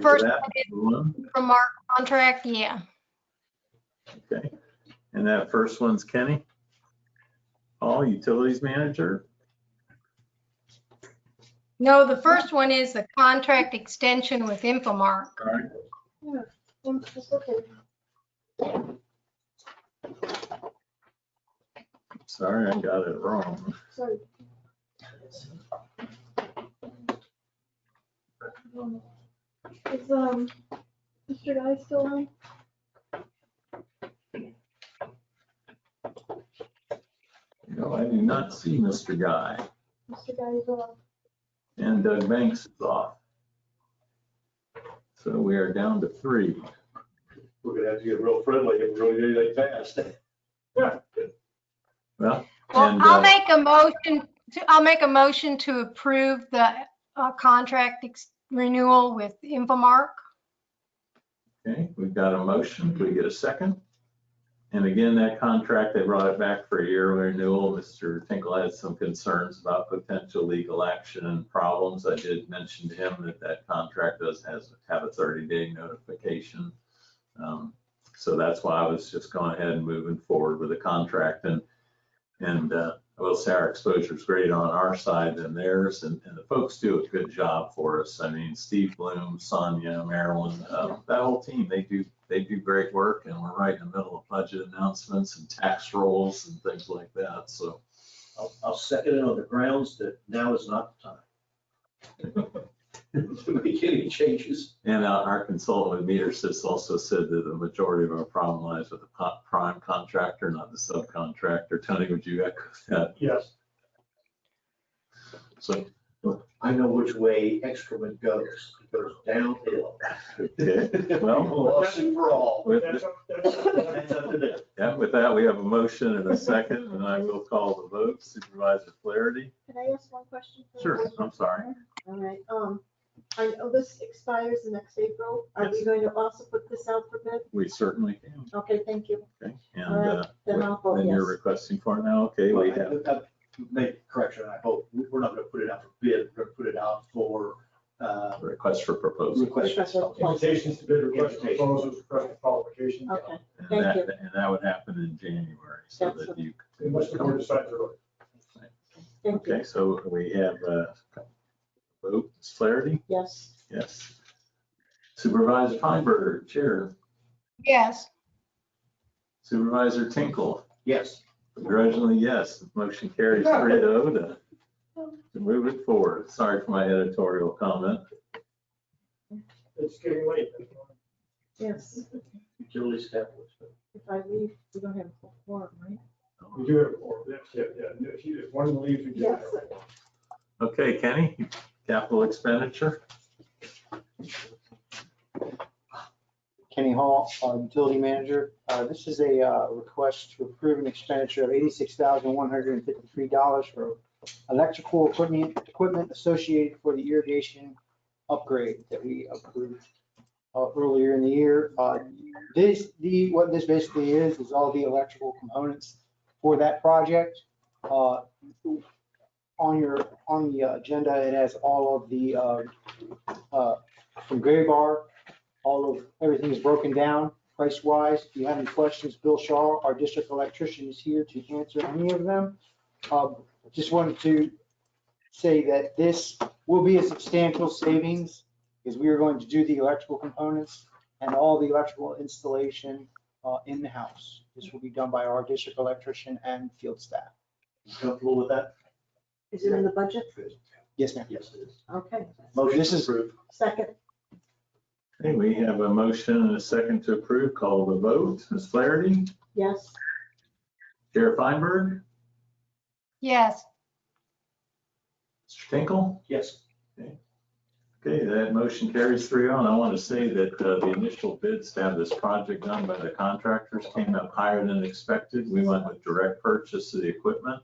for First, that one, from our contract, yeah. okay. And that first one's Kenny. Paul, Utilities Manager. No, the first one is the contract extension with Infomark. All right, sorry, I got it wrong. Is, um, Mr. Guy still on? No, I do not see Mr. Guy. Mr. Guy is uh, on. And Doug Banks is off. So we are down to three. We're gonna have to get real friendly if we're gonna do anything fast. Well, Well, And, uh, I'll make a motion, to I'll make a motion to approve the uh, contract ex- renewal with Infomark. okay, we've got a motion. Can we get a second? And again, that contract, they brought it back for a year renewal. Mr. Tinkle had some concerns about potential legal action and problems. I did mention to him that that contract does has, have a 30-day notification. Um, So that's why I was just going ahead and moving forward with the contract. And, and uh, I will say our exposure is greater on our side than theirs, and, and the folks do a good job for us. I mean, Steve Bloom, Sonia, Marilyn, um, that whole team, they do, they do great work, and we're right in the middle of budget announcements and tax rolls and things like that, so. I'll, I'll second it on the grounds that now is not the time. To make any changes. And uh, our consultant with Meter Sys also said that the majority of our problem lies with the po- prime contractor, not the subcontractor. Tony, would you echo that? Yes. So, I know which way excrement goes. It goes downhill. okay. Well, Once and for all. with, That's up, that's up uh, to That's up to them. Yeah, with that, we have a motion and a second, and I will call the vote. Supervisor Flaherty? Can I ask one question? for the Sure, board? I'm sorry. All right, um, I know this expires the next April. Are we Yes. going to also put this out for bid? We certainly can. Okay, thank you. Okay, and All uh, right, then I'll vote then you're yes. requesting for it now. Okay, we have, Well, I- I- Make a correction, I hope. We- We're not gonna put it out for bid, we're gonna put it out for, uh, a request for proposal. request. Request for the Invitations to bid request Invitations. proposals, request for qualifications, uh, Okay, And Thank that, you. and that would happen in January, so That's that you. unless the board decides to. thank you. Okay, so we have a vote, Ms. Flaherty? Yes. Yes. Supervisor Feinberg, Chair. Yes. Supervisor Tinkle, Yes. begrudgingly, yes. Motion carries three to oh to to move it forward. Sorry for my editorial comment. It's getting late. Yes, Utilities have. if I leave, we don't have a forum, right? We do have, four. That's it, yeah, if you, if one leaves, we do have. Yes. four. Okay, Kenny, capital expenditure, Kenny Hall, uh, Utility Manager. Uh, This is a uh, request to approve an expenditure of $86,153 for electrical equipment, equipment associated for the irrigation upgrade that we approved uh, earlier in the year. Uh, This, the, what this basically is, is all the electrical components for that project. Uh, On your, on the agenda, it has all of the, uh, uh, from Gray Bar all of, everything is broken down price-wise. If you have any questions, Bill Shaw, our district electrician, is here to answer any of them. Um, Just wanted to say that this will be a substantial savings because we are going to do the electrical components and all the electrical installation uh, in the house. This will be done by our district electrician and field staff. Comfortable with that? Is it in the budget? Yes, ma'am. Yes, it is. Okay, Motion This is is- approved. second, Okay, we have a motion and a second to approve, call the vote, Ms. Flaherty, yes. Chair Feinberg, Yes. Mr. Tinkle. Yes. Okay, that motion carries three on. I want to say that uh, the initial bids to have this project done by the contractors came up higher than expected. We went with direct purchase of the equipment.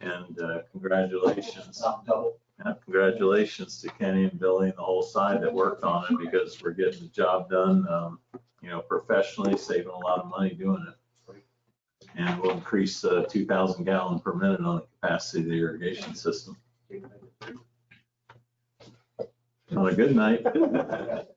And uh, congratulations, Not double. uh, congratulations to Kenny and Billy and the whole side that worked on it because we're getting the job done, um, you know, professionally, saving a lot of money doing it. And we'll increase uh, 2,000 gallon per minute on the capacity of the irrigation system. On a good night.